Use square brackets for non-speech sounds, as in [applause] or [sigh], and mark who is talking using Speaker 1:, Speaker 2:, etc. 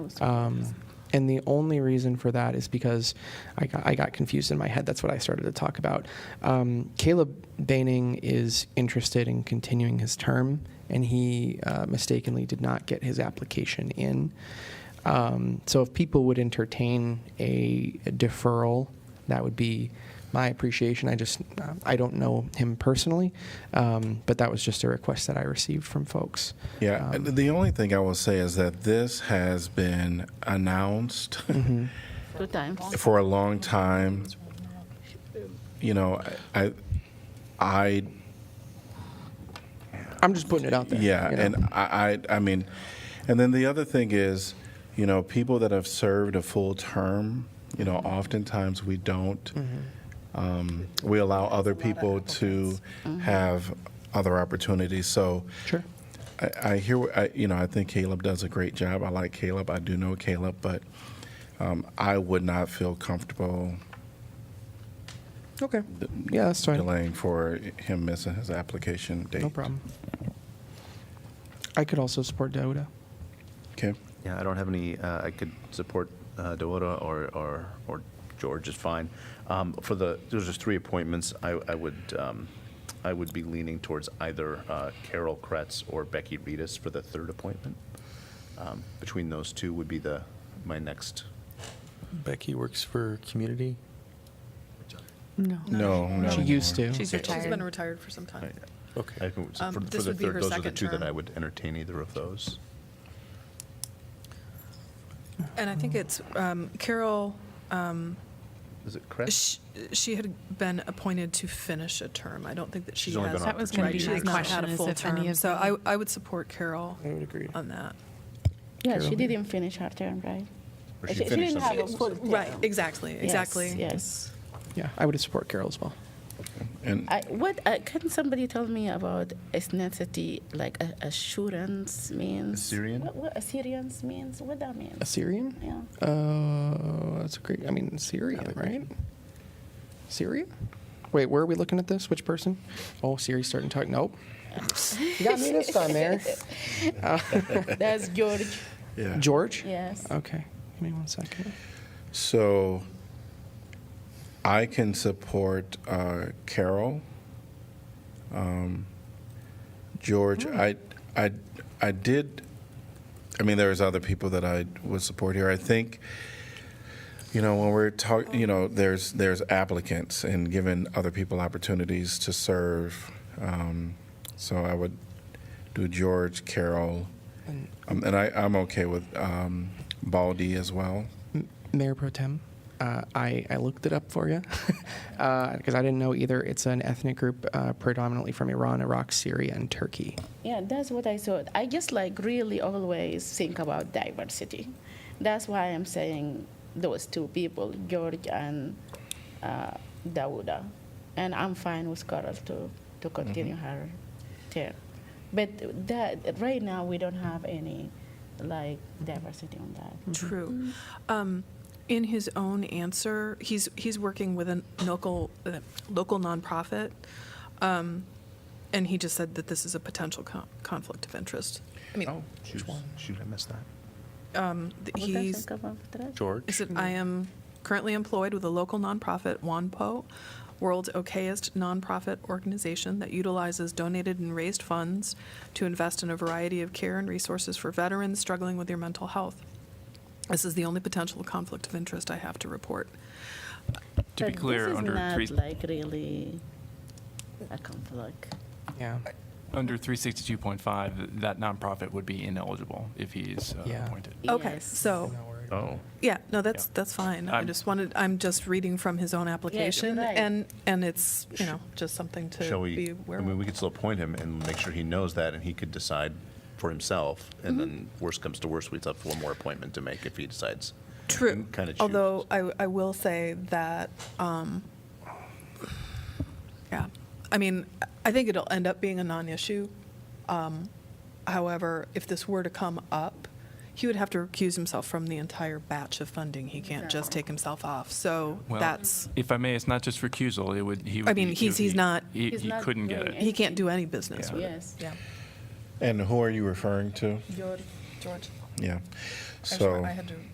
Speaker 1: Um, and the only reason for that is because I got, I got confused in my head. That's what I started to talk about. Um, Caleb Baining is interested in continuing his term, and he uh, mistakenly did not get his application in. Um, so if people would entertain a deferral, that would be my appreciation. I just uh, I don't know him personally, um, but that was just a request that I received from folks.
Speaker 2: Yeah.
Speaker 1: Um,
Speaker 2: the only thing I will say is that this has been announced
Speaker 1: Mm-hmm.
Speaker 3: Two times.
Speaker 2: for a long time. You know, I, I,
Speaker 1: I'm just putting it out there.
Speaker 2: yeah,
Speaker 1: you know?
Speaker 2: and I, I, I mean, and then the other thing is, you know, people that have served a full term. You know,
Speaker 1: Mm-hmm.
Speaker 2: oftentimes we don't. Um, we allow other people to
Speaker 1: Mm-hmm.
Speaker 2: have other opportunities. So,
Speaker 1: sure.
Speaker 2: I, I hear, I, you know, I think Caleb does a great job. I like Caleb. I do know Caleb, but um, I would not feel comfortable
Speaker 1: Okay. Yeah, that's fine.
Speaker 2: delaying for him missing his application date.
Speaker 1: No problem. I could also support Doda.
Speaker 2: Okay.
Speaker 4: Yeah, I don't have any, uh, I could support uh, Dewoto or, or, or George is fine. Um, For the, there's just three appointments, I, I would, um, I would be leaning towards either uh, Carol Kretz or Becky Reedus for the third appointment. Um, Between those two would be the, my next,
Speaker 5: Becky works for community.
Speaker 3: No.
Speaker 2: No, no.
Speaker 1: She used to.
Speaker 6: She's
Speaker 4: Okay.
Speaker 6: retired. She's been retired for some time.
Speaker 5: Okay.
Speaker 4: I can-
Speaker 6: Um,
Speaker 4: for for
Speaker 6: this
Speaker 4: the
Speaker 6: would be her
Speaker 4: third, those are the
Speaker 6: second
Speaker 4: two that
Speaker 6: term.
Speaker 4: I would entertain either of those.
Speaker 6: And I think it's um, Carol,
Speaker 4: Is it Kretz?
Speaker 6: sh- she had been appointed to finish a term. I don't think that she
Speaker 4: She's only
Speaker 6: has.
Speaker 4: been on That was gonna
Speaker 6: right,
Speaker 4: be
Speaker 6: she
Speaker 4: my
Speaker 6: has not had
Speaker 7: question,
Speaker 6: a
Speaker 7: is
Speaker 6: full
Speaker 7: if any
Speaker 6: term.
Speaker 7: of
Speaker 6: So
Speaker 7: them-
Speaker 6: I, I would support Carol
Speaker 1: I would agree.
Speaker 6: on that.
Speaker 3: Yeah, she
Speaker 1: Carol.
Speaker 3: didn't finish her term, right?
Speaker 4: Or she
Speaker 3: didn't
Speaker 4: finished
Speaker 3: have a
Speaker 4: them.
Speaker 3: full term.
Speaker 6: Right, exactly,
Speaker 3: Yes,
Speaker 6: exactly.
Speaker 3: Yes.
Speaker 1: Yeah, I would support Carol as well.
Speaker 2: And
Speaker 3: I, what, uh, can somebody tell me about ethnicity, like uh, assurance means?
Speaker 4: Assyrian?
Speaker 3: What, what Assyrians means, what that means?
Speaker 1: Assyrian?
Speaker 4: [laughs]
Speaker 3: Yeah.
Speaker 1: Uh, that's a great. I mean, Syria, right? Syria. Wait, where are we looking at this? Which person? Oh, Siri's starting to talk. Nope. you got me this time, there.
Speaker 3: That's George,
Speaker 2: yeah.
Speaker 1: George.
Speaker 3: yes.
Speaker 1: Okay. Give me one second.
Speaker 2: So I can support uh, Carol. Um, George, I, I, I did. I mean, there's other people that I would support here. I think, you know, when we're talking, you know, there's there's applicants and giving other people opportunities to serve. Um, so I would do George, Carol, um, and I, I'm okay with um, Baldy as well.
Speaker 1: Mayor Pro Tem. Uh, I, I looked it up for [laughs] you because I didn't know either. It's an ethnic group uh, predominantly from Iran, Iraq, Syria, and Turkey.
Speaker 3: Yeah, that's what I thought. I just like really always think about diversity. That's why I'm saying those two people, George and uh, Dawuda. And I'm fine with Carol to, to continue
Speaker 5: Mm-hmm.
Speaker 3: her term. But that, right now, we don't have any like diversity on that.
Speaker 6: True. Um, in his own answer, he's he's working with a local uh, local nonprofit, um, and he just said that this is a potential con- conflict of interest. I mean,
Speaker 4: Oh, shoot, shoot, I missed that.
Speaker 6: th-
Speaker 3: What does
Speaker 6: he's
Speaker 3: it come after that?
Speaker 5: George.
Speaker 6: Is it, I am currently employed with a local nonprofit, WANPO, world's okayest nonprofit organization that utilizes donated and raised funds to invest in a variety of care and resources for veterans struggling with their mental health. This is the only potential conflict of interest I have to report.
Speaker 5: To be
Speaker 3: But
Speaker 5: clear,
Speaker 3: this is
Speaker 5: under
Speaker 3: not
Speaker 5: three,
Speaker 3: like really a conflict.
Speaker 1: Yeah.
Speaker 5: under 362.5, that nonprofit would be ineligible if he's uh,
Speaker 1: Yeah.
Speaker 5: appointed.
Speaker 6: Okay,
Speaker 3: Yes.
Speaker 6: so,
Speaker 4: Oh.
Speaker 6: yeah, no, that's,
Speaker 5: Yeah.
Speaker 6: that's fine. I
Speaker 5: I'm-
Speaker 6: just wanted, I'm just reading from his own application,
Speaker 3: right.
Speaker 6: and, and it's, you know, just something
Speaker 4: Shall
Speaker 6: to be
Speaker 4: we,
Speaker 6: aware
Speaker 4: I
Speaker 6: of.
Speaker 4: mean, we could still appoint him and make sure he knows that, and he could decide for himself, and then
Speaker 6: Mm-hmm.
Speaker 4: worst comes to worst, we'd have one more appointment to make if he decides.
Speaker 6: True.
Speaker 4: and kinda choose.
Speaker 6: Although I, I will say that, um, yeah, I mean, I think it'll end up being a non-issue. Um, However, if this were to come up, he would have to recuse himself from the entire batch of funding. He can't just take himself off. So
Speaker 5: Well,
Speaker 6: that's,
Speaker 5: If I may, it's not just recusal. It would, he would.
Speaker 6: I mean,
Speaker 5: be-
Speaker 6: he's-
Speaker 5: he would
Speaker 6: he's
Speaker 5: be-
Speaker 6: not-
Speaker 5: He,
Speaker 3: He's
Speaker 5: he
Speaker 3: not
Speaker 5: couldn't
Speaker 3: doing
Speaker 5: get it.
Speaker 3: it.
Speaker 6: he can't do any business with it.
Speaker 3: Yes.
Speaker 6: Yeah.
Speaker 2: And who are you referring to?
Speaker 6: George. George.
Speaker 2: Yeah.
Speaker 6: Actually,
Speaker 2: So.
Speaker 6: I had to